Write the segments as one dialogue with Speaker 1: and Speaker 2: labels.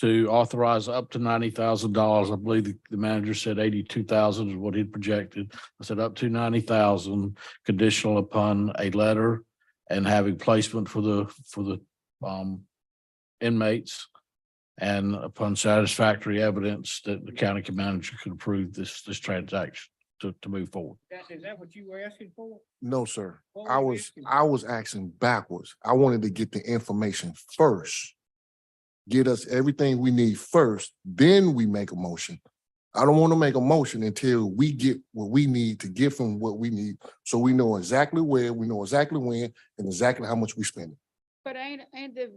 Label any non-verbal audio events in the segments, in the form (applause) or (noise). Speaker 1: to authorize up to ninety thousand dollars. I believe the the manager said eighty-two thousand is what he'd projected. I said up to ninety thousand, conditional upon a letter and having placement for the, for the um inmates and upon satisfactory evidence that the county manager could approve this, this transaction to, to move forward.
Speaker 2: That, is that what you were asking for?
Speaker 3: No, sir.
Speaker 2: What
Speaker 3: I
Speaker 2: were you
Speaker 3: was,
Speaker 2: asking
Speaker 3: I
Speaker 2: for?
Speaker 3: was asking backwards. I wanted to get the information first. Get us everything we need first, then we make a motion. I don't want to make a motion until we get what we need to get from what we need. So we know exactly where, we know exactly when, and exactly how much we spending.
Speaker 4: But ain't, ain't the,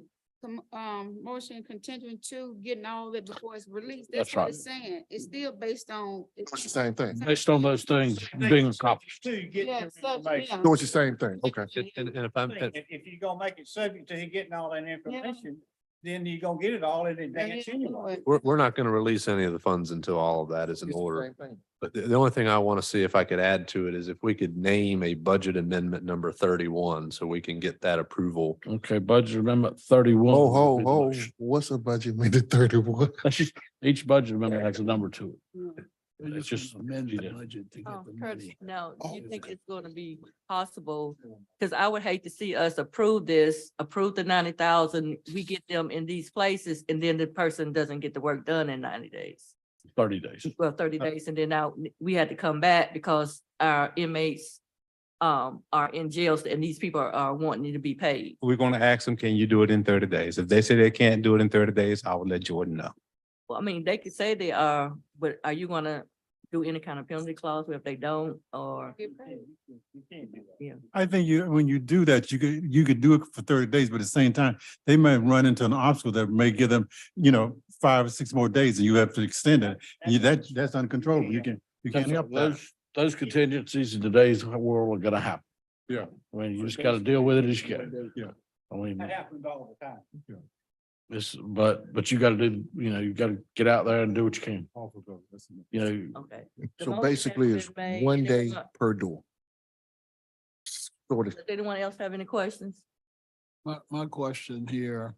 Speaker 4: com- um, motion contingent to getting all that before it's released?
Speaker 1: That's
Speaker 4: That's what
Speaker 1: right.
Speaker 4: it's saying. It's still based on. it's-
Speaker 3: It's the same thing.
Speaker 1: Based on those things being accomplished.
Speaker 2: To get
Speaker 4: Yeah,
Speaker 2: your
Speaker 4: so-
Speaker 2: information.
Speaker 4: yeah.
Speaker 3: No, it's the same thing. Okay.
Speaker 5: And, and and if I'm,
Speaker 2: Thing, If, if you're gonna make it subject to he getting all that information, then you're gonna get it all in
Speaker 4: Yeah,
Speaker 2: advance
Speaker 4: you know
Speaker 2: anyway.
Speaker 4: it.
Speaker 5: we're, we're not going to release any of the funds until all of that is in
Speaker 3: It's the
Speaker 5: order.
Speaker 3: same thing.
Speaker 5: But the, the only thing I want to see if I could add to it is if we could name a budget amendment number thirty-one, so we can get that approval.
Speaker 1: Okay, budget amendment thirty-one.
Speaker 3: Ho, Oh, ho, ho. What's a budget made at (laughs) thirty-one?
Speaker 1: That's just, (laughs) each budget amendment has a number to it. It's just amended.
Speaker 6: Oh, Curtis, no, do
Speaker 3: Oh.
Speaker 6: you think it's gonna be possible? Cause I would hate to see us approve this, approve the ninety thousand, we get them in these places, and then the person doesn't get the work done in ninety days.
Speaker 1: thirty days.
Speaker 6: Well, thirty
Speaker 1: Uh,
Speaker 6: days, and then now we had to come back because our inmates um are in jails and these people are- are wanting to be paid.
Speaker 7: we're gonna ask them, can you do it in thirty days? If they say they can't do it in thirty days, I will let Jordan know.
Speaker 6: Well, I mean, they could say they are, but are you gonna do any kind of penalty clause if they don't, or?
Speaker 4: Get paid.
Speaker 2: You can't do that.
Speaker 8: I think you, when you do that, you could, you could do it for thirty days, but at the same time, they might run into an obstacle that may give them, you know, five or six more days and you have to extend it. You, that, that's uncontrollable. You can, you can't help that.
Speaker 1: Those, those contingencies in today's world are gonna happen.
Speaker 8: Yeah.
Speaker 1: I mean, you just gotta deal with it as you go.
Speaker 8: Yeah.
Speaker 1: I mean,
Speaker 2: That happens all the time.
Speaker 1: this, but, but you gotta do, you know, you gotta get out there and do what you can, you know.
Speaker 6: Okay. The
Speaker 3: So
Speaker 6: motion has
Speaker 3: basically it's
Speaker 6: been made.
Speaker 3: one
Speaker 6: Anyone
Speaker 3: day
Speaker 6: else-
Speaker 3: per door. Sort of.
Speaker 6: Does anyone else have any questions?
Speaker 9: My, my question here.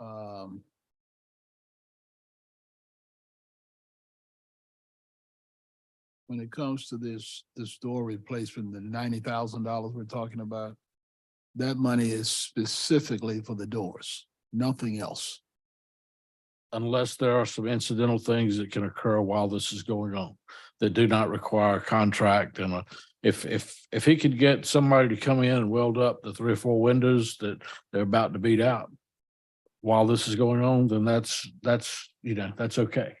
Speaker 9: Um. When it comes to this, this door replacement, the ninety thousand dollars we're talking about. That money is specifically for the doors, nothing else.
Speaker 1: unless there are some incidental things that can occur while this is going on that do not require a contract and a, if, if, if he could get somebody to come in and weld up the three or four windows that they're about to beat out while this is going on, then that's, that's, you know, that's okay.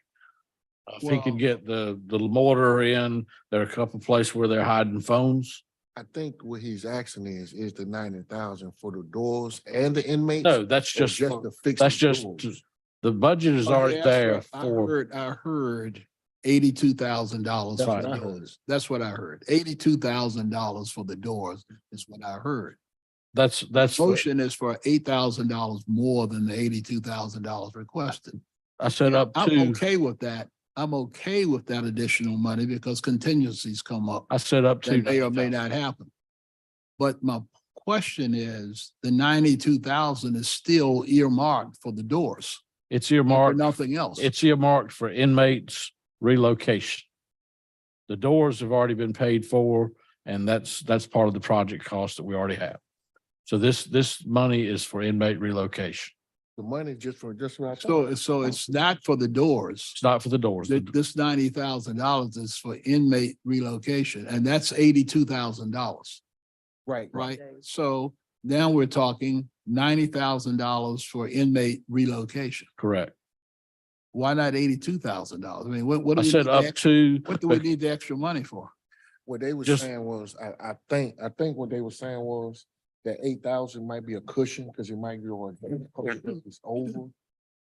Speaker 1: If he
Speaker 9: Well-
Speaker 1: could get the, the mortar in, there are a couple places where they're hiding phones.
Speaker 3: I think what he's asking is, is the ninety thousand for the doors and the inmates?
Speaker 1: No,
Speaker 3: or
Speaker 1: that's just,
Speaker 3: Just
Speaker 1: for-
Speaker 3: to fix.
Speaker 1: that's
Speaker 3: the
Speaker 1: just,
Speaker 3: doors?
Speaker 1: the budget is
Speaker 9: Oh, yeah,
Speaker 1: already
Speaker 9: that's
Speaker 1: there
Speaker 9: right. I
Speaker 1: for,
Speaker 9: heard- I heard eighty-two thousand dollars
Speaker 1: That's
Speaker 9: for
Speaker 1: what I
Speaker 9: the
Speaker 1: heard.
Speaker 9: doors. That's what I heard. Eighty-two thousand dollars for the doors is what I heard.
Speaker 1: that's, that's, the-
Speaker 9: Motion is for eight thousand dollars more than the eighty-two thousand dollars requested.
Speaker 1: I set up
Speaker 9: I'm
Speaker 1: to.
Speaker 9: okay with that. I'm okay with that additional money because contingencies come up
Speaker 1: I set up to.
Speaker 9: that may or may not happen. But my question is, the ninety-two thousand is still earmarked for the doors,
Speaker 1: It's
Speaker 9: or
Speaker 1: earmarked,
Speaker 9: nothing else.
Speaker 1: it's earmarked for inmates relocation. The doors have already been paid for and that's, that's part of the project cost that we already have. So this, this money is for inmate relocation.
Speaker 3: The money just for, just for.
Speaker 9: So, so it's not for the doors.
Speaker 1: It's not for the doors.
Speaker 9: Th- This ninety thousand dollars is for inmate relocation, and that's eighty-two thousand dollars.
Speaker 3: Right.
Speaker 9: right?
Speaker 6: Okay.
Speaker 9: So now we're talking ninety thousand dollars for inmate relocation.
Speaker 1: Correct.
Speaker 9: Why not eighty-two thousand dollars? I mean, what, what?
Speaker 1: I
Speaker 9: do we
Speaker 1: said
Speaker 9: need the
Speaker 1: up
Speaker 9: ex-
Speaker 1: to,
Speaker 9: What do we need the extra money for?
Speaker 3: What they were
Speaker 1: Just-
Speaker 3: saying was, I, I think, I think what they were saying was that eight thousand might be a cushion, because it might be on, it's over,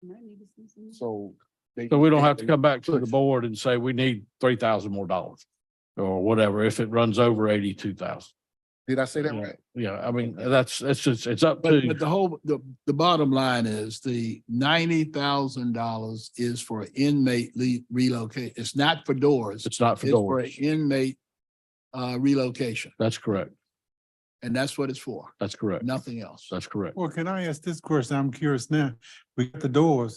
Speaker 4: Might need to see some-
Speaker 3: so. they-
Speaker 1: so we don't have to come back to the board and say we need three thousand more dollars or whatever, if it runs over eighty-two thousand.
Speaker 3: Did I say that right?
Speaker 1: Yeah, I mean, that's, that's just, it's up
Speaker 9: But,
Speaker 1: to,
Speaker 9: but the whole, the, the bottom line is the ninety thousand dollars is for inmate le- relocate. It's not for doors.
Speaker 1: it's not for
Speaker 9: It's for
Speaker 1: doors.
Speaker 9: inmate uh, relocation,
Speaker 1: That's correct.
Speaker 9: and that's what it's for,
Speaker 1: That's correct.
Speaker 9: nothing else.
Speaker 1: That's correct.
Speaker 8: Well, can I ask this question? I'm curious now. We got the doors.